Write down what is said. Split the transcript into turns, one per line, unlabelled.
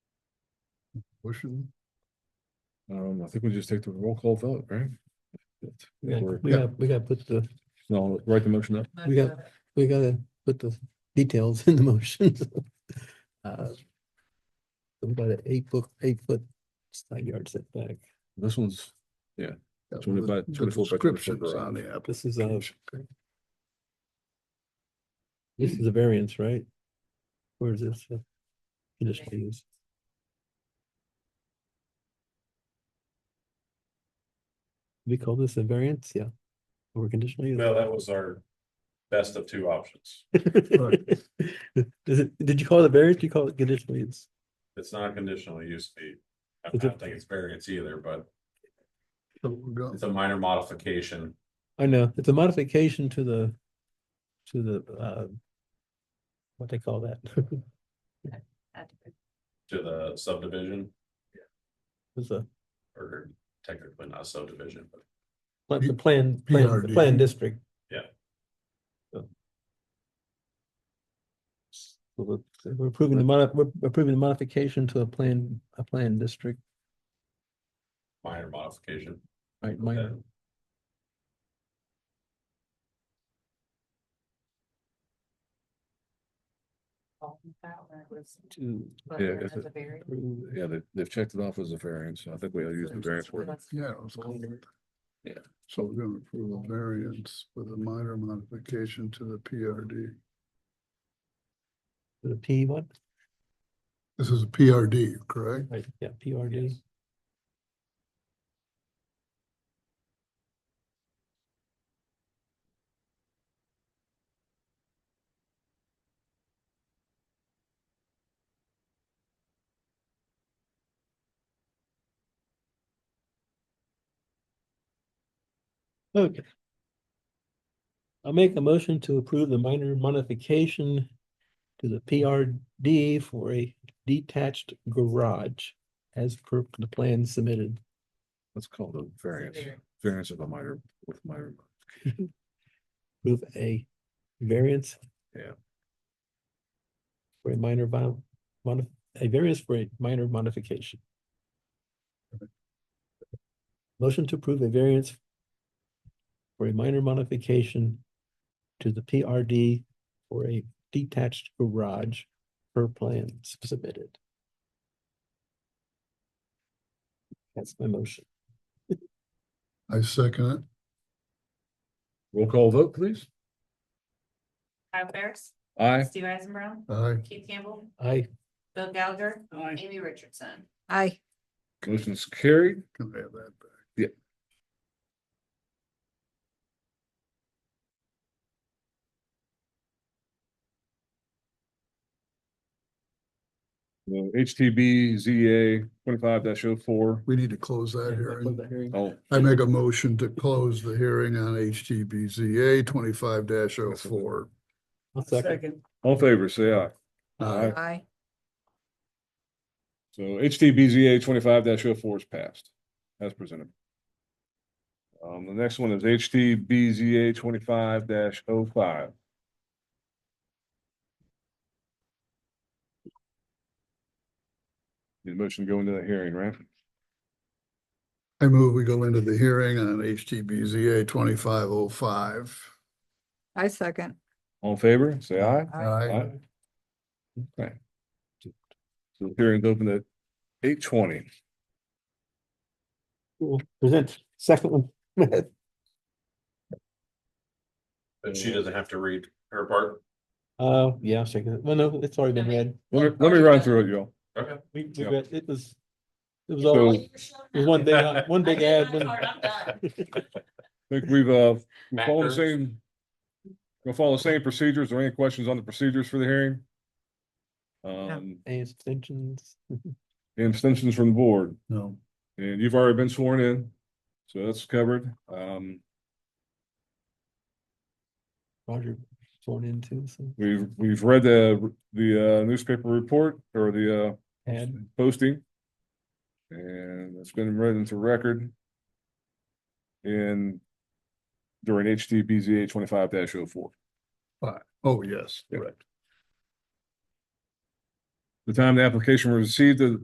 Motion. Um, I think we just take the roll call vote, right?
We gotta,
Or-
we gotta, we gotta put the,
No, write the motion up.
we got- we gotta put the details in the motion. Uh, About an eight book, eight foot side yard setback.
This one's,
Yeah, well,
20 by
the- the
24 by 24
Descriptions
garage.
on the app.
This is a, this is a variance, right? Where is this? uh, Conditional use. We call this a variance, yeah. Or conditional use.
No, that was our best of two options.
Is it, did you call it a variance? You call it conditional use?
It's not conditional use fee. I
Is
don't
it-
think it's variance either, but
So we're go-
it's a minor modification.
I know, it's a modification to the, to the, uh, what they call that.
to the subdivision,
It's a,
or technically not subdivision, but
pla- the plan, plan, the
PRD.
plan district.
Yeah.
So So we're- so we're approving the mod, we're approving the modification to a plan, a plan district,
minor modification.
right, minor.
Okay.
to
Yeah, it's a-
variant.
approve.
yeah, they, they've checked it off as a variance, so I think we'll use the variance for it.
Yeah. it was all-
Yeah.
So we're gonna approve a variance with a minor modification to the PRD.
The P one,
This is a PRD, correct?
right, yeah, PRD. Okay. I'll make a motion to approve the minor modification to the PRD for a detached garage as per the plan submitted.
Let's call it a variance, variance of a minor, with minor,
Approve a variance.
Yeah.
For a minor vol- modif, a variance for a minor modification. Motion to approve a variance for a minor modification to the PRD for a detached garage per plan submitted. That's my motion.
I second it.
roll call vote, please.
Kyle Ferris,
Aye.
Steve Eisenbrow,
Aye.
Keith Campbell,
I,
Bill Gallagher, Amy Richardson.
Aye.
Motion's carried.
Can I have that back?
Uh, HTB ZA twenty-five oh 4
We need to close that
close
hearing.
the hearing.
Oh,
I make a motion to close the hearing on HTBZA twenty-five oh 4
I'll second.
all in favor, say aye.
Aye.
Aye.
So HTBZA twenty-five 4 is passed, as presented. Um, the next one is HTBZA twenty-five oh 5 Need a motion to go into that hearing, right?
I move we go into the hearing on HTBZA twenty-five oh five.
I second.
All in favor, say aye.
Aye.
Okay. So the hearing's open at eight twenty.
We'll Present second one.
But she doesn't have to read her part.
Uh, yeah, second. Well, no, it's already been read.
Let me, let me run through it, y'all.
Okay.
We, we
Yeah.
read, it was, it was
So-
all, it was one big, one big ad. one-
I'm done.
I think we've, uh, we
Matt
follow the
Kurtz.
same, we'll follow the same procedures. Are there any questions on the procedures for the hearing? Um,
Any extensions?
any abstentions from the board,
No.
and you've already been sworn in, so that's covered. Um,
Roger sworn into some
we've, we've read the, the uh, newspaper report or the, uh,
ad.
posting. And it's been read into record. In during HTBZA twenty-five 4
Oh, yes,
Yep.
correct.
The time the application was received, the